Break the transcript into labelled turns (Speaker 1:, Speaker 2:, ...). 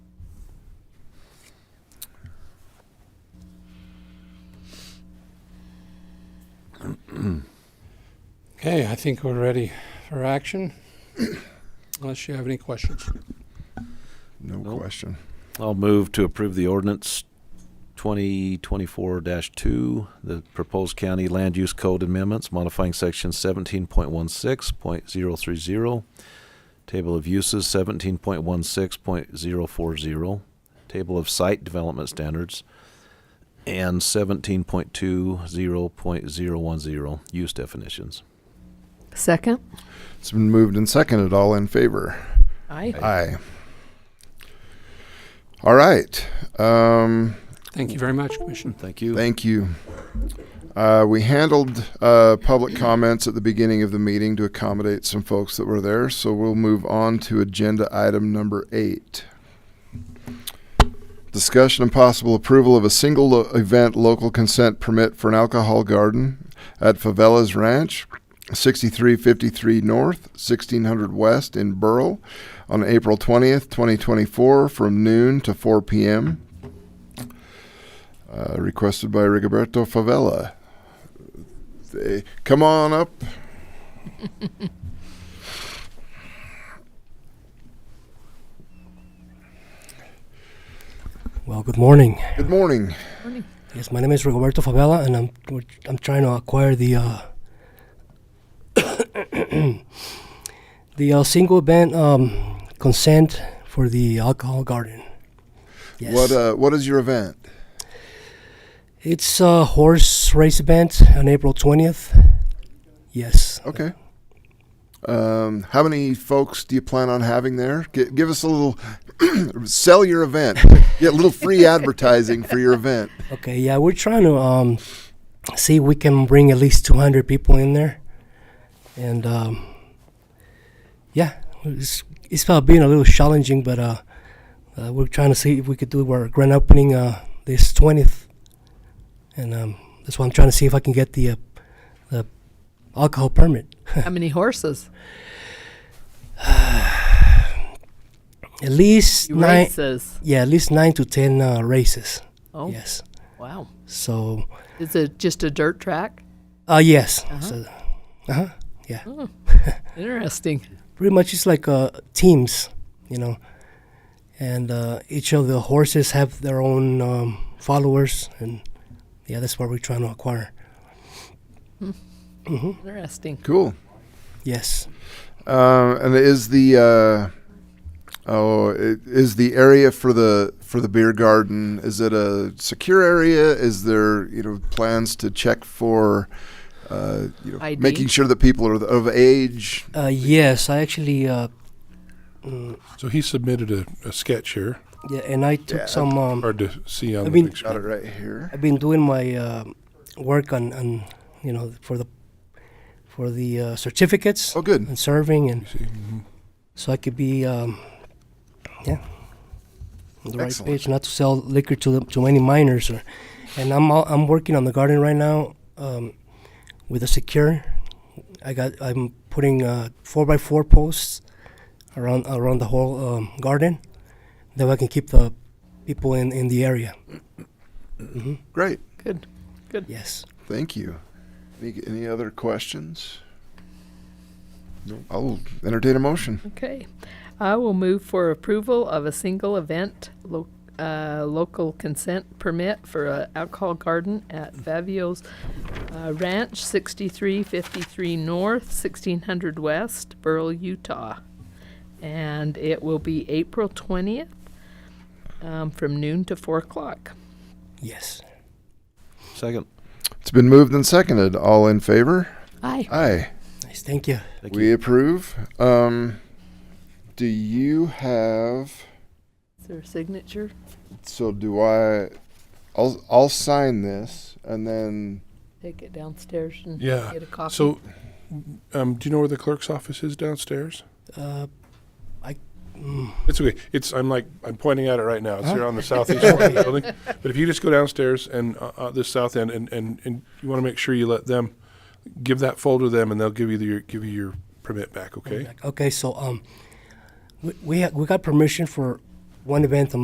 Speaker 1: Okay, I think we're ready for action, unless you have any questions.
Speaker 2: No
Speaker 3: Nope.
Speaker 2: question.
Speaker 3: I'll move to approve the ordinance twenty twenty-four two, the proposed county land use code amendments modifying section seventeen point one six point zero three zero, table of uses seventeen point one six point zero four zero, table of site development standards, and seventeen point two zero point zero one zero, use definitions.
Speaker 4: Second?
Speaker 2: It's been moved and seconded. All in favor?
Speaker 4: Aye.
Speaker 2: Aye. All right. Um,
Speaker 1: Thank you very much, Commissioner.
Speaker 3: Thank you.
Speaker 2: thank you. Uh, we handled uh, public comments at the beginning of the meeting to accommodate some folks that were there, so we'll move on to agenda item number eight. Discussion and possible approval of a single lo- event local consent permit for an alcohol garden at Favela's Ranch, 6353 North, 1600 West in Burl, on April 20th, 2024, from noon to 4 p.m. Uh, requested by Rigoberto Favela. They, come on up.
Speaker 5: Well, good morning.
Speaker 2: Good morning.
Speaker 5: Yes, my name is Roberto Favela, and I'm we're- I'm trying to acquire the uh, the uh, single event um, consent for the alcohol garden. Yes,
Speaker 2: What uh, what is your event?
Speaker 5: it's a horse race event on April twentieth. Yes,
Speaker 2: Okay. Um, how many folks do you plan on having there? G- give us a little sell your event. Get a little free advertising for your event.
Speaker 5: Okay, yeah, we're trying to um, see if we can bring at least 200 people in there. And um, yeah, it's, it's about being a little challenging, but uh, uh, we're trying to see if we could do our grand opening uh, this 20th. And um, that's why I'm trying to see if I can get the, uh, the alcohol permit.
Speaker 4: How many horses?
Speaker 5: At least nine.
Speaker 4: Races.
Speaker 5: Yeah, at least nine to 10 uh, races.
Speaker 4: Oh,
Speaker 5: Yes.
Speaker 4: wow.
Speaker 5: So,
Speaker 4: Is it just a dirt track?
Speaker 5: uh, yes. So, uh-huh. Yeah.
Speaker 4: Interesting.
Speaker 5: pretty much it's like uh, teams, you know, and uh, each of the horses have their own um, followers, and yeah, that's what we're trying to acquire.
Speaker 4: Interesting.
Speaker 2: Cool.
Speaker 5: Yes,
Speaker 2: Um, and is the uh, oh i- is the area for the for the beer garden? Is it a secure area? Is there you know plans to check for uh, you know
Speaker 4: ID?
Speaker 2: making sure that people are of age?
Speaker 5: uh, yes, I actually, uh,
Speaker 6: So he submitted a, a sketch here,
Speaker 5: yeah, and I took
Speaker 2: Yeah,
Speaker 5: some. Um,
Speaker 6: hard to see on
Speaker 5: I
Speaker 6: the
Speaker 5: mean-
Speaker 6: picture.
Speaker 2: Got it right here.
Speaker 5: I've been doing my uh, work on, on, you know, for the for the uh, certificates
Speaker 2: Oh, good.
Speaker 5: and serving, and
Speaker 6: You see? Mhm.
Speaker 5: so I could be, um, yeah, on the right
Speaker 2: Excellent.
Speaker 5: page, not to sell liquor to the, to any minors. Or, and I'm all, I'm working on the garden right now um, with a secure. I got I'm putting uh, four by four posts around around the whole um, garden, that way I can keep the people in in the area.
Speaker 2: Great.
Speaker 4: Good.
Speaker 5: Yes.
Speaker 2: Thank you. Any, any other questions? No. I'll entertain a motion.
Speaker 4: Okay. I will move for approval of a single event lo- uh, local consent permit for an alcohol garden at Favio's uh, Ranch, 6353 North, 1600 West, Burl, Utah. And it will be April 20th um, from noon to 4 o'clock.
Speaker 5: Yes.
Speaker 3: Second.
Speaker 2: It's been moved and seconded. All in favor?
Speaker 4: Aye.
Speaker 2: Aye.
Speaker 5: Nice. Thank you.
Speaker 3: Thank
Speaker 2: We
Speaker 3: you.
Speaker 2: approve. Um, do you have?
Speaker 4: Is there a signature?
Speaker 2: So do I? I'll I'll sign this and then
Speaker 4: Take it downstairs and
Speaker 6: Yeah.
Speaker 4: get a copy.
Speaker 6: So, um, do you know where the clerk's office is downstairs?
Speaker 5: Uh, I. Mm,
Speaker 6: It's okay. It's I'm like I'm pointing at it right now. It's
Speaker 5: Huh?
Speaker 6: here on the southeast corner of the building. But if you just go downstairs and uh, uh, this south end, and, and, and you want to make sure you let them give that folder to them, and they'll give you the, your give you your permit back. Okay.
Speaker 5: okay. So um, we we, ha- we got permission for one event a